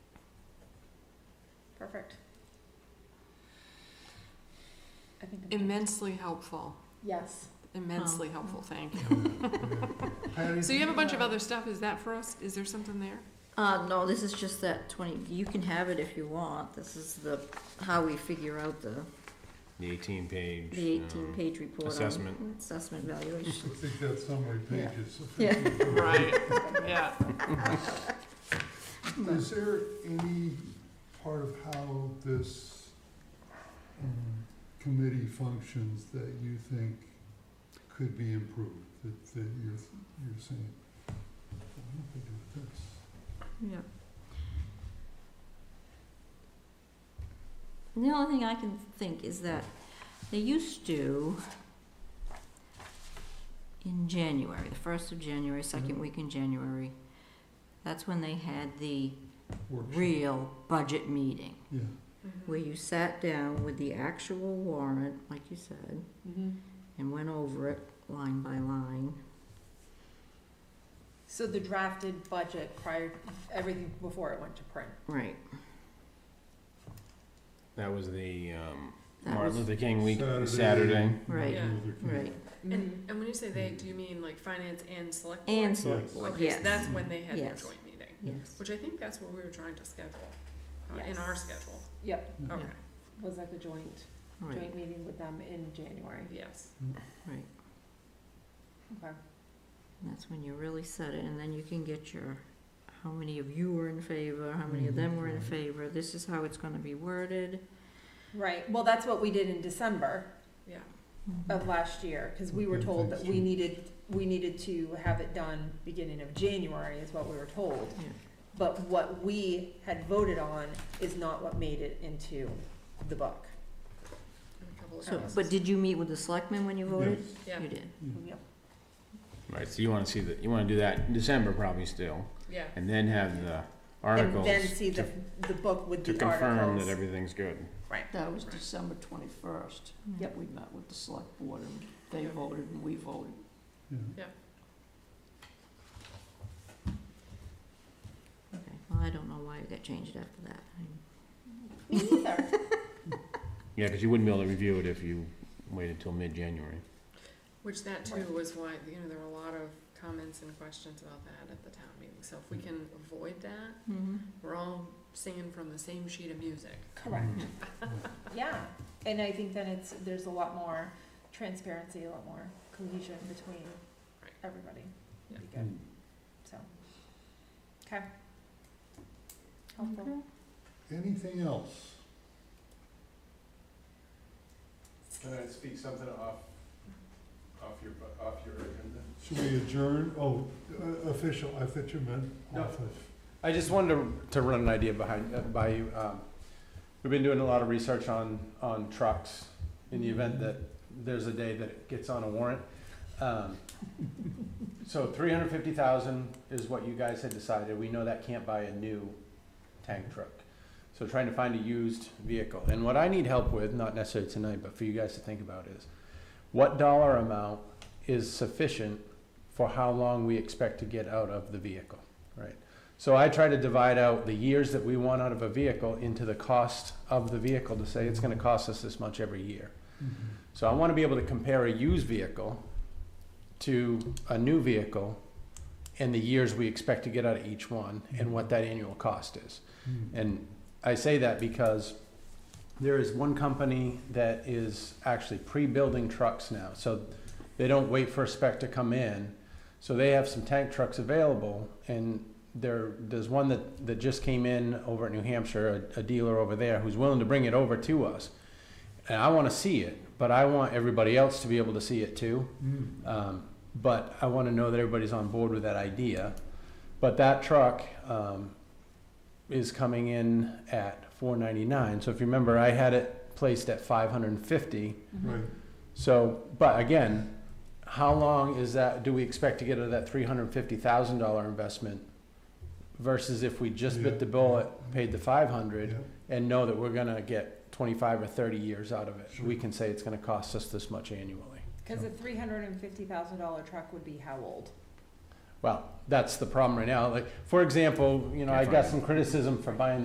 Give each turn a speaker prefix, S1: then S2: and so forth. S1: perfect. I think. I'm-
S2: Immensely helpful,
S1: Yes.
S2: immensely helpful, thank you.
S3: Patty,
S2: So you have a bunch of other stuff, is that for us? Is there something there?
S4: Uh, no, this is just that twenty, you can have it if you want, this is the, how we figure out the,
S5: The eighteen page. um,
S4: the eighteen page report on.
S5: assessment.
S4: Assessment
S3: I
S4: valuation,
S3: think that summary page
S4: Yeah.
S3: is sufficient.
S2: Right, yeah.
S3: Is there any part of how this um, committee functions that you think could be improved, that, that you're, you're saying, "Well, what do we do with this?
S4: yeah. The only thing I can think is that they used to, in January, the first of January, second week in January, that's when they had the
S3: Workshop.
S4: real budget meeting.
S3: Yeah,
S2: Mm-hmm.
S4: where you sat down with the actual warrant, like you said,
S2: Mhm.
S4: and went over it line by line.
S1: So the drafted budget prior, everything before it went to print.
S4: Right.
S5: That was the, um,
S4: That
S5: Martin
S4: was-
S5: Luther King week,
S3: Saturday.
S5: Saturday.
S4: Right,
S2: Yeah.
S3: Martin Luther King.
S4: right.
S1: Mm-hmm.
S2: And, and when you say they, do you mean like finance and select board?
S4: And select
S3: Yes.
S4: board,
S2: Okay, so
S4: yes,
S2: that's when they had their
S4: Yes.
S2: joint meeting,
S4: yes.
S2: which I think that's what we were trying to schedule, uh, in
S1: Yes.
S2: our schedule.
S1: Yep,
S3: Yeah.
S2: Okay,
S1: was like a joint,
S4: Right,
S1: joint meeting with them in January.
S2: yes.
S4: right.
S1: Okay.
S4: And That's when you really set it, and then you can get your, how many of you were in favor, how many of them were in
S3: Mhm.
S4: favor, this is how it's gonna be worded.
S1: Right, well, that's what we did in December
S2: Yeah,
S1: of last year, cause we were
S3: Okay,
S1: told that
S3: thanks.
S1: we needed, we needed to have it done beginning of January is what we were told.
S4: Yeah.
S1: But what we had voted on is not what made it into the book.
S2: and a couple of
S4: So,
S2: houses.
S4: but did you meet with the selectmen when you voted?
S3: Yes.
S2: Yeah,
S4: You did.
S1: Yep.
S5: Right, so you wanna see that, you wanna do that in December probably still,
S2: yeah,
S5: and then have the
S1: And
S5: articles
S1: then see the,
S5: to,
S1: the book with
S5: to
S1: the
S5: confirm that
S1: articles.
S5: everything's good.
S6: That was
S2: Right.
S6: December twenty-first.
S1: Yep.
S6: We met with the select board and they
S2: Yeah.
S6: voted and we voted.
S3: Yeah.
S4: Okay, well, I don't know why it got changed after that. I-
S1: Me neither.
S5: Yeah, cause you wouldn't be able to review it if you waited till mid-January.
S2: which that too was why, you know, there were a lot of comments and questions about that at the town meeting. So if we can avoid that,
S1: Mm-hmm.
S2: we're all singing from the same sheet of music.
S1: Correct. Yeah, and I think then it's, there's a lot more transparency, a lot more cohesion between
S2: Right.
S1: everybody.
S2: Yeah.
S1: Be good, so. Okay. Helpful.
S3: Anything else?
S5: Can I speak something off, off your, off your agenda?
S3: Should we adjourn? Oh, uh, official, I thought you meant
S5: No.
S3: office.
S5: I just wanted to, to run an idea behind, uh, by you. Um, we've been doing a lot of research on, on trucks in the event that there's a day that it gets on a warrant. Um, so three hundred fifty thousand is what you guys had decided. We know that can't buy a new tank truck. So trying to find a used vehicle. And what I need help with, not necessarily tonight, but for you guys to think about is what dollar amount is sufficient for how long we expect to get out of the vehicle, right? So I try to divide out the years that we want out of a vehicle into the cost of the vehicle to say it's gonna cost us this much every year. So I wanna be able to compare a used vehicle to a new vehicle and the years we expect to get out of each one and what that annual cost is. And I say that because there is one company that is actually pre-building trucks now. So they don't wait for a spec to come in. So they have some tank trucks available and there, there's one that, that just came in over at New Hampshire, a, a dealer over there who's willing to bring it over to us. And I want to see it, but I want everybody else to be able to see it too.
S3: Mm.
S5: Um, but I want to know that everybody's on board with that idea. But that truck um, is coming in at 499. So if you remember, I had it placed at 550.
S3: Right,
S5: So, but again, how long is that? Do we expect to get out of that 350,000 dollar investment versus if we just
S3: Yeah.
S5: bit the bullet, paid the 500,
S3: yeah.
S5: and know that we're going to get 25 or 30 years out of it?
S3: Sure.
S5: We can say it's going to cost us this much annually.
S1: Cause a three hundred and fifty thousand dollar truck would be how old?
S5: Well, that's the problem right now. Like, for example, you know, I got some criticism for buying